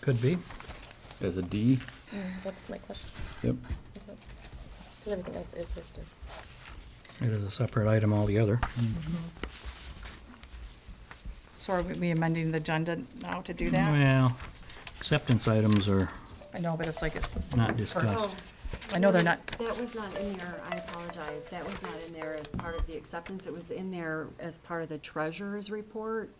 Could be. as a D. Mm, That's my question. Yep. Because everything else is listed. It is a separate item altogether. So are we amending the agenda now to do that? Well, acceptance items are I know, but it's like it's, not discussed. Oh, I know they're not- That was not in there, I apologize, that was not in there as part of the acceptance, it was in there as part of the treasurer's report.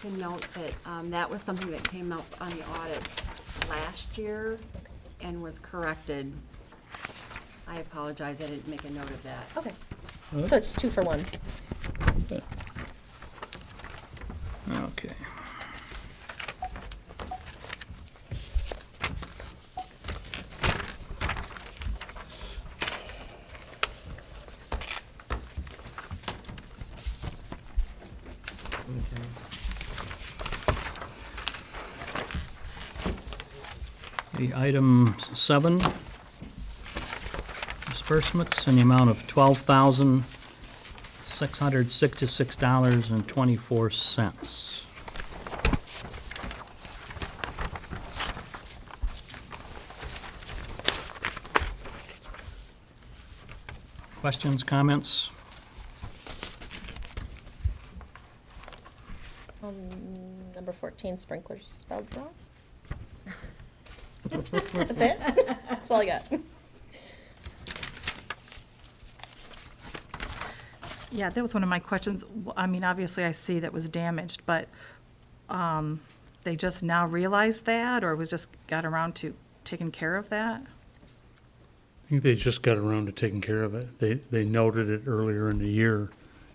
To note that, um, that was something that came up on the audit last year and was corrected. I apologize, I didn't make a note of that. Okay. So it's two for one. Okay. Okay, item seven, disbursements in the amount of twelve thousand six hundred sixty-six dollars and twenty-four cents. Questions, comments? Um, number fourteen, sprinklers spelled wrong. That's it? That's all I got. yeah, that was one of my questions. W- I mean, obviously I see that was damaged, but um, they just now realized that or was just got around to taking care of that? I think they just got around to taking care of it. They, they noted it earlier in the year,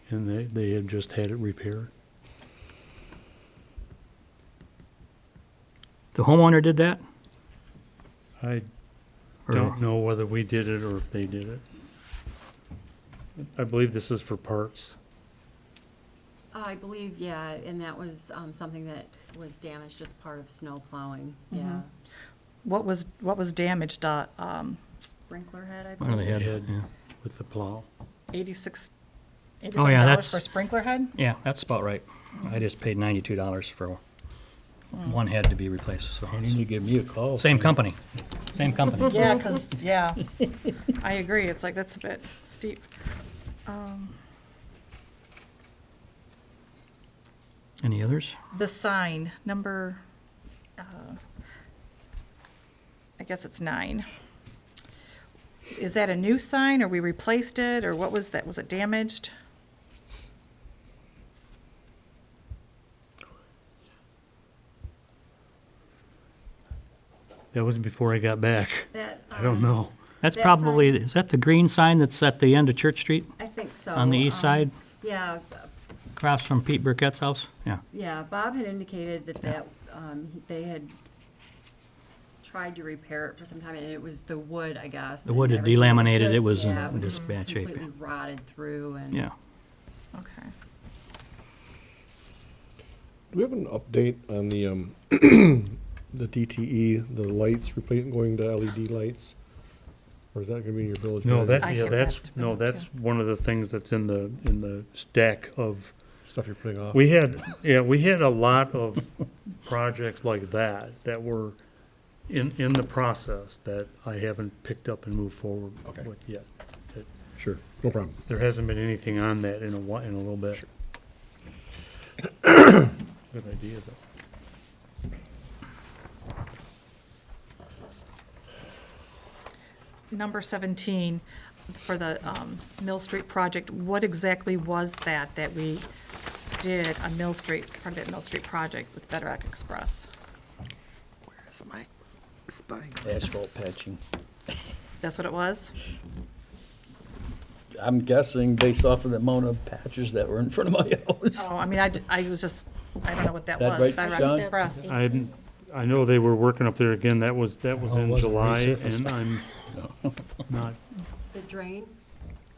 and they, they had just had it repaired. The homeowner did that? I or- don't know whether we did it or if they did it. I believe this is for parts. Uh, I believe, yeah, and that was, um, something that was damaged as part of snow plowing, Mm-hmm. yeah. What was, what was damaged, uh, um, Sprinkler head, I One of the believe. head, Head. yeah. With the plow. 86, Oh, yeah, $87 for that's- sprinkler head? Yeah, that's about right. I just paid ninety-two dollars for one head to be replaced, so Why didn't you give me a call? it's- same company, same company. Yeah, because, yeah, I agree, it's like, that's a bit steep. Um, Any others? The sign, number, uh, I guess it's nine. Is that a new sign, or we replaced it, or what was that, was it damaged? That was before I got back. That, I don't um, know. Uh, That's That probably, sign- is that the green sign that's at the end of Church Street, I think so. on the east um, side, Yeah, across from Pete Burkett's house? Yeah. yeah, Bob had indicated that that, um, he- they had tried to repair it for some time, and it was the wood, I guess. The and would had everything delaminated, it just- was in yeah, it was this just bad shape, Completely rotted through and. Yeah. Okay. Do we have an update on the, um, the DTE, the lights replacing, going to LED lights? Or is that gonna be in your village? No, guide? that, I yeah, hear that's, that. no, that's one of the things that's in the, in the stack of Stuff you're putting off? We had, yeah, we had a lot of projects like that, that were in, in the process that I haven't picked up and moved forward Okay. with yet. Sure, no problem. There hasn't been anything on that in a while, in a little bit. Good idea, though. Number 17, for the um, Mill Street project, what exactly was that that we did on Mill Street, part of that Mill Street project with Bedrock Express? Asphalt patching. That's what it was? I'm guessing based off of the amount of patches that were in front of my house. Oh, I mean, I, d- I was just, I don't know what that That was. right, Bedrock John? Express. I, hadn't- I know they were working up there again, that was, that was Oh, it in wasn't July, resurfaced. and I'm not, The drain,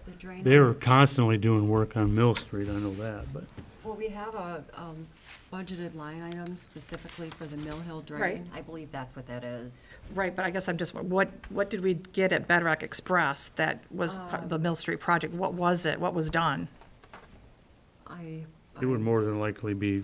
the drain. they were constantly doing work on Mill Street, I know that, but. Well, we have a, um, budgeted line item specifically for the Mill Hill drain. I believe that's what that is. Right, but I guess I'm just, what, what did we get at Bedrock Express that was part of the Mill Street project? What was it? What was done? I. It would more than likely be